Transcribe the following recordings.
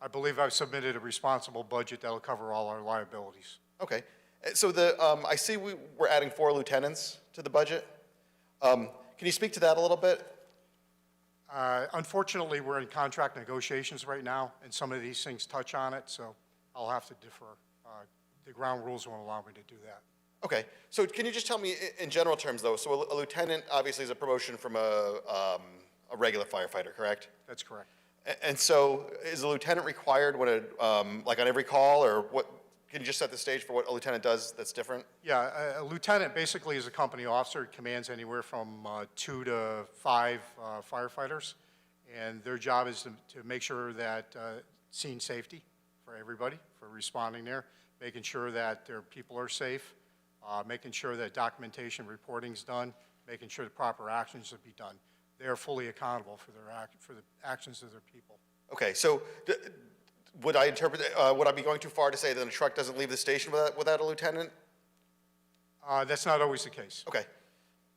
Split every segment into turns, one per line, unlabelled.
I believe I've submitted a responsible budget that'll cover all our liabilities.
Okay, Uh, so the, um, I see we, we're adding four lieutenants to the budget. Um, Can you speak to that a little bit?
Uh, Unfortunately, we're in contract negotiations right now, and some of these things touch on it, so I'll have to differ. Uh, The ground rules won't allow me to do that.
Okay, so can you just tell me i- in general terms, though, so a lieutenant obviously is a promotion from a, um, a regular firefighter, correct?
That's correct.
A- And so is a lieutenant required when a, um, like on every call, or what, can you just set the stage for what a lieutenant does that's different?
Yeah, a- a lieutenant basically is a company officer, commands anywhere from uh, two to five uh, firefighters, and their job is to- to make sure that uh, scene safety for everybody, for responding there, making sure that their people are safe, uh, making sure that documentation reporting's done, making sure the proper actions would be done. They are fully accountable for their, act- for the actions of their people.
Okay, so d- would I interpret, uh, would I be going too far to say that a truck doesn't leave the station without, without a lieutenant?
Uh, That's not always the case.
Okay.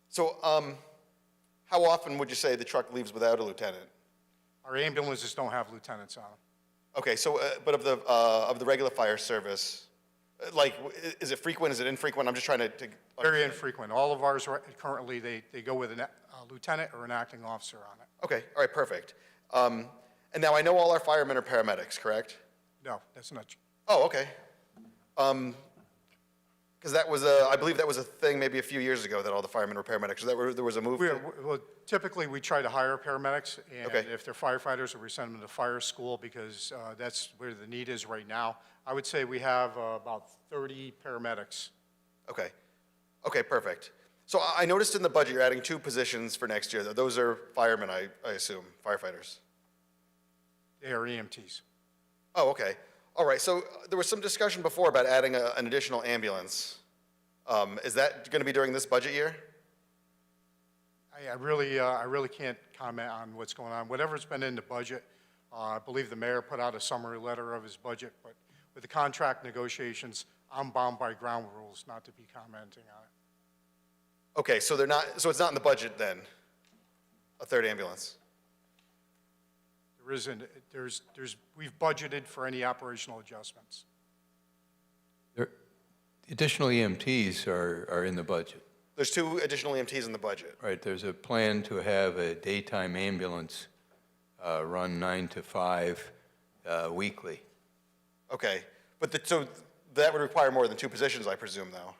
So, um, how often would you say the truck leaves without a lieutenant?
Our ambulances don't have lieutenants on them.
Okay, so, uh, but of the, uh, of the regular fire service, uh, like, w- i- is it frequent, is it infrequent? I'm just trying to, to,
Very infrequent. All of ours right- currently, they, they go with an a- a lieutenant or an acting officer on it.
okay, all right, perfect. Um, and now I know all our firemen are paramedics, correct?
No, that's not, tr-
Oh, okay. Um, because that was a, I believe that was a thing maybe a few years ago that all the firemen were paramedics. Is that where there was a move?
we,
to-
are- well, typically, we try to hire paramedics, and
Okay.
if they're firefighters, we send them to fire school, because uh, that's where the need is right now. I would say we have uh, about 30 paramedics.
Okay. Okay, perfect. So I I noticed in the budget, you're adding two positions for next year. Th- Those are firemen, I, I assume, firefighters.
They are E EMTs.
Oh, okay. All right, so uh, there was some discussion before about adding a, an additional ambulance. Um, is that gonna be during this budget year?
I, I really, uh, I really can't comment on what's going on. Whatever's been in the budget, uh, I believe the mayor put out a summary letter of his budget, but with the contract negotiations, I'm bound by ground rules not to be commenting on it.
Okay, so they're not, so it's not in the budget then? A third ambulance?
There isn't, there's, there's, we've budgeted for any operational adjustments.
There- Additional EMTs are, are in the budget,
There's two additional EMTs in the budget.
right? There's a plan to have a daytime ambulance uh, run nine to five uh, weekly.
Okay, but the, so that would require more than two positions, I presume, though?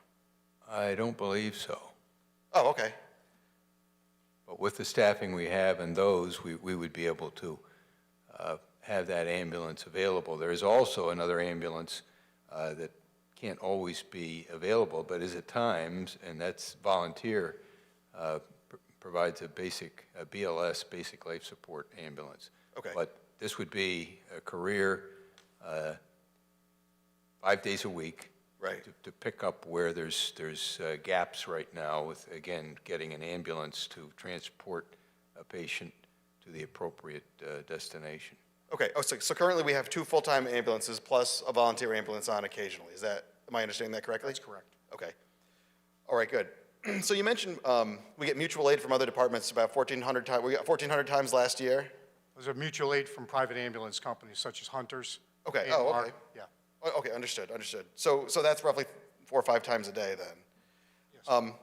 I don't believe so,
Oh, okay.
but with the staffing we have and those, we, we would be able to uh, have that ambulance available. There is also another ambulance uh, that can't always be available, but is at times, and that's volunteer, uh, pr- provides a basic, a BLS, basic life support ambulance.
Okay.
But this would be a career, uh, five days a week.
Right.
to- To pick up where there's, there's uh, gaps right now with, again, getting an ambulance to transport a patient to the appropriate uh, destination.
Okay, oh, so, so currently we have two full-time ambulances plus a volunteer ambulance on occasionally, is that, am I understanding that correctly? That's
correct.
Okay. All right, good. So you mentioned, um, we get mutual aid from other departments about fourteen hundred times. we got fourteen hundred times last year?
There's a mutual aid from private ambulance companies such as Hunter's.
Okay, oh,
AMR.
okay.
Yeah,
O- Okay, understood, understood. So, so that's roughly four or five times a day then? Um,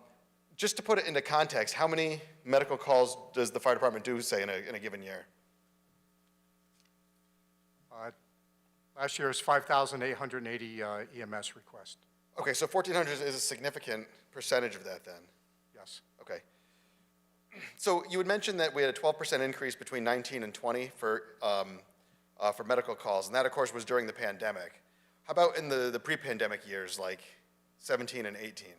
just to put it into context, how many medical calls does the fire department do, say, in a, in a given year?
Uh, last year's 5,880 uh, EMS request,
Okay, so fourteen hundred is a significant percentage of that then?
yes.
Okay. So you had mentioned that we had a 12% increase between 19 and 20 for, um, uh, for medical calls, and that, of course, was during the pandemic. How about in the, the pre-pandemic years, like 17 and 18?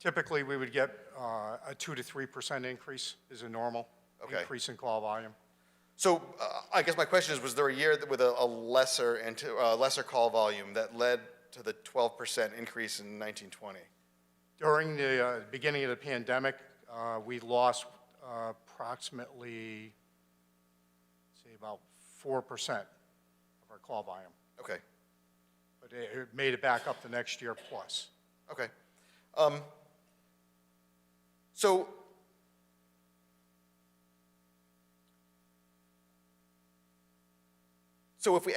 Typically, we would get uh, a 2 to 3% increase is a normal
Okay.
increase in call volume.
So uh, I guess my question is, was there a year that with a, a lesser, and uh, lesser call volume that led to the 12% increase in 1920?
During the uh, beginning of the pandemic, uh, we lost uh, approximately, say, about 4% of our call volume.
Okay.
but it it made it back up the next year plus.
Okay. Um, so, so if we